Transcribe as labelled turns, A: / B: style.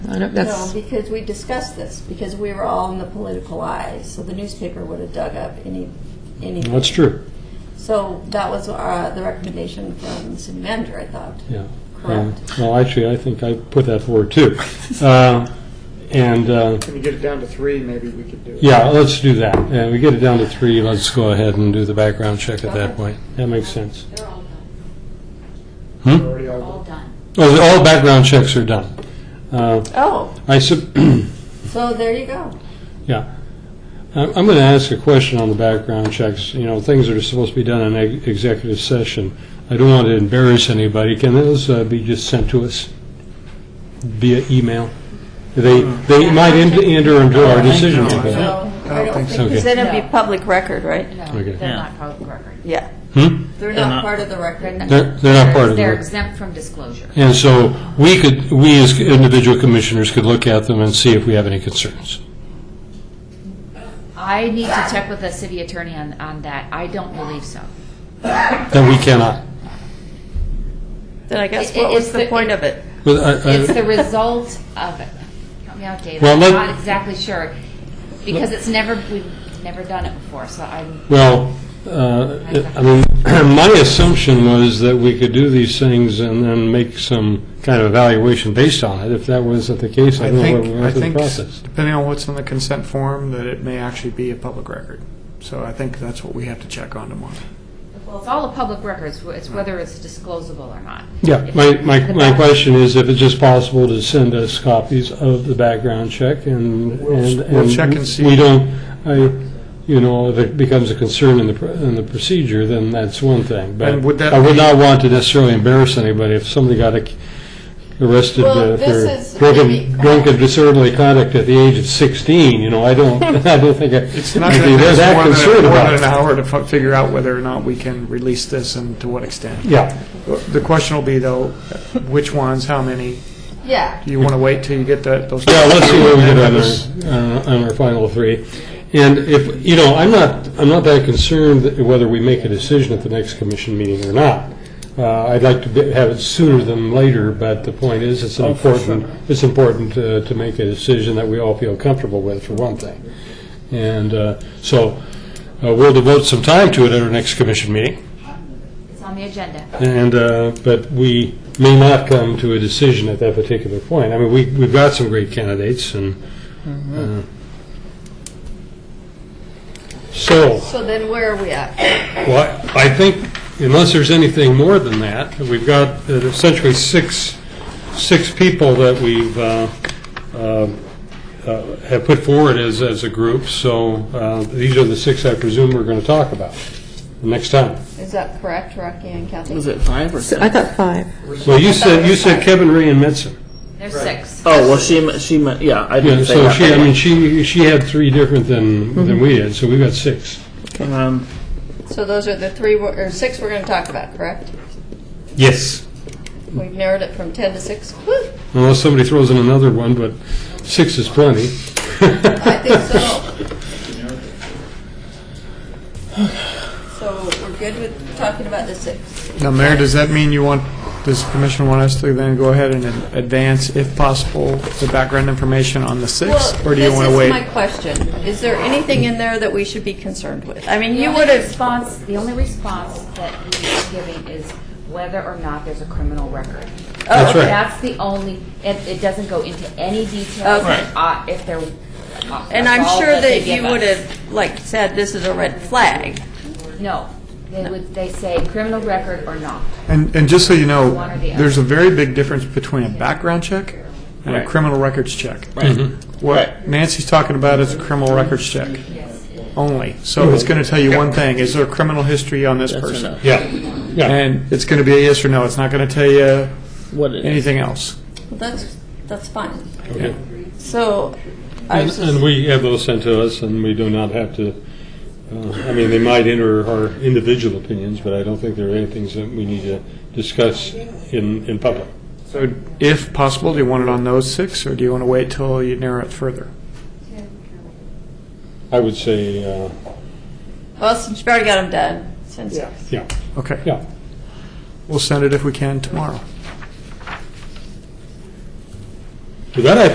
A: I don't,
B: No,
A: that's,
B: because we discussed this, because we were all in the political eye, so the newspaper would have dug up any, anything.
C: That's true,
B: So that was uh, the recommendation from the city manager, I thought.
C: yeah.
B: Correct.
C: And- Well, actually, I think I put that forward too. Um, And, uh,
D: Can we get it down to three, maybe we could do it.
C: yeah, let's do that. And we get it down to three, let's go ahead and do the background check at that point. That makes sense.
E: They're all done,
C: Hmm?
D: We're already all-
E: all done.
C: Oh, the- all background checks are done. Uh,
B: Oh,
C: I sub,
B: so there you go.
C: yeah. I'm I'm going to ask a question on the background checks, you know, things that are supposed to be done in ex- executive session. I don't want to embarrass anybody. Can those uh, be just sent to us via email? They, they might enter enter into our decision
F: No, I
C: making.
B: So I don't think,
C: Okay.
G: Because then it'd
E: No.
G: be public record, right?
E: No,
C: Okay.
E: they're
F: Yeah.
E: not public record.
G: Yeah.
C: Hmm?
B: they're
F: They're
B: not
F: not-
B: part of the record.
C: They're, they're not part of the
E: They're
C: record.
E: exempt from disclosure.
C: And so we could, we as individual commissioners could look at them and see if we have any concerns.
E: I need to check with the city attorney on, on that. I don't believe so.
C: Then we cannot.
G: Then I guess
E: It- it-
G: what was
E: it's
G: the
E: the-
G: point of it?
C: But I- I-
E: It's the result of it. Help me out, David.
C: Uh, Well,
E: I'm
C: let-
E: not exactly sure, because it's never, we've never done it before, so I'm,
C: Well, uh, I mean, my assumption was that we could do these things and then make some kind of evaluation based on it. If that wasn't the case, I
F: I
C: don't know what
F: think,
C: we
F: I
C: went through the
F: think,
C: process.
F: depending on what's on the consent form, that it may actually be a public record. So I think that's what we have to check on tomorrow.
E: well, it's all a public records, it's whether it's disclosable or not.
C: Yeah, my, my, my question is if it's just possible to send us copies of the background check and.
F: We'll- we'll
C: and
F: check and see.
C: We don't, I, you know, if it becomes a concern in the, pr- in the procedure, then that's one thing. But
F: And would that
C: I would
F: be-
C: not want to necessarily embarrass anybody if somebody got ac- arrested
H: Well,
C: uh,
H: this
C: for
H: is
C: drunken,
H: maybe-
C: drunken disorderly conduct at the age of 16, you know, I don't, I don't think I.
F: It's not
C: I'd
F: going
C: be
F: to take us
C: that
F: more than,
C: concerned
F: more
C: about
F: than an
C: it.
F: hour to fi- figure out whether or not we can release this and to what extent.
C: Yeah,
F: The question will be though, which ones, how many?
H: Yeah.
F: Do you want to wait till you get that, those?
C: yeah, let's see what we get on our, on our final three. And if, you know, I'm not, I'm not that concerned that whether we make a decision at the next commission meeting or not. Uh, I'd like to be- have it sooner than later, but the point is, it's an important, it's important uh, to make a decision that we all feel comfortable with, for one thing. And uh, so, uh, we'll devote some time to it at our next commission meeting.
E: It's on the agenda.
C: And, uh, but we may not come to a decision at that particular point. I mean, we, we've got some great candidates and, uh, so,
H: So then where are we at?
C: well, I I think unless there's anything more than that, we've got uh, essentially six, six people that we've, uh, uh, uh, have put forward as, as a group, so, uh, these are the six I presume we're gonna talk about next time.
H: Is that correct, Rocky and Kathy?
I: Was it five or
A: so
I: six?
A: I thought five.
C: Well, you said, you said Kevin Ray and Metzen.
E: There's six.
I: Oh, well, she, meant- she meant, yeah, I
C: Yeah,
I: didn't say
C: so
I: that.
C: she, I mean, she, she had three different than, than we did, so we got six.
I: Um,
H: So those are the three, we're- or six we're going to talk about, correct?
C: Yes.
H: We've narrowed it from 10 to 6. Woo!
C: Unless somebody throws in another one, but six is plenty.
H: I think so. So we're good with talking about the six.
F: Now, Mayor, does that mean you want, does commission want us to then go ahead and advance, if possible, the background information on the six?
H: Well,
F: Or do you want to wait?
H: This is my question. Is there anything in there that we should be concerned with? I mean,
E: The
H: you
E: only
H: would have,
E: response, the only response that he's giving is whether or not there's a criminal record.
G: Oh,
C: That's right.
E: That's the only, it, it doesn't go into any detail
H: Okay.
E: uh, if there. uh,
G: And
E: that's
G: I'm
E: all
G: sure that
E: they
G: you
E: give us.
G: would have, like, said, this is a red flag.
E: No, they would, they say criminal record or not.
F: And, and just so you know,
E: One or the other.
F: there's a very big difference between a background check and a
I: Right.
F: criminal records check.
I: right.
C: Mm-hmm.
F: What Nancy's talking about is a criminal records check only. So it's going to tell you one thing, is there a criminal history on this
I: That's
F: person?
I: enough.
C: Yeah, yeah.
F: And it's going to be a yes or no, it's not going to tell you
I: What it is.
F: anything else.
H: that's, that's fine.
C: Okay.
H: So I
C: And
H: was
C: and
H: just,
C: we have those sent to us, and we do not have to, uh, I mean, they might enter our individual opinions, but I don't think there are any things that we need to discuss in, in public.
F: So if possible, do you want it on those six, or do you want to wait till you narrow it further?
C: I would say, uh,
H: well, since we already got them done, since
C: yeah,
F: Okay,
C: yeah.
F: we'll send it if we can tomorrow.
C: With that, I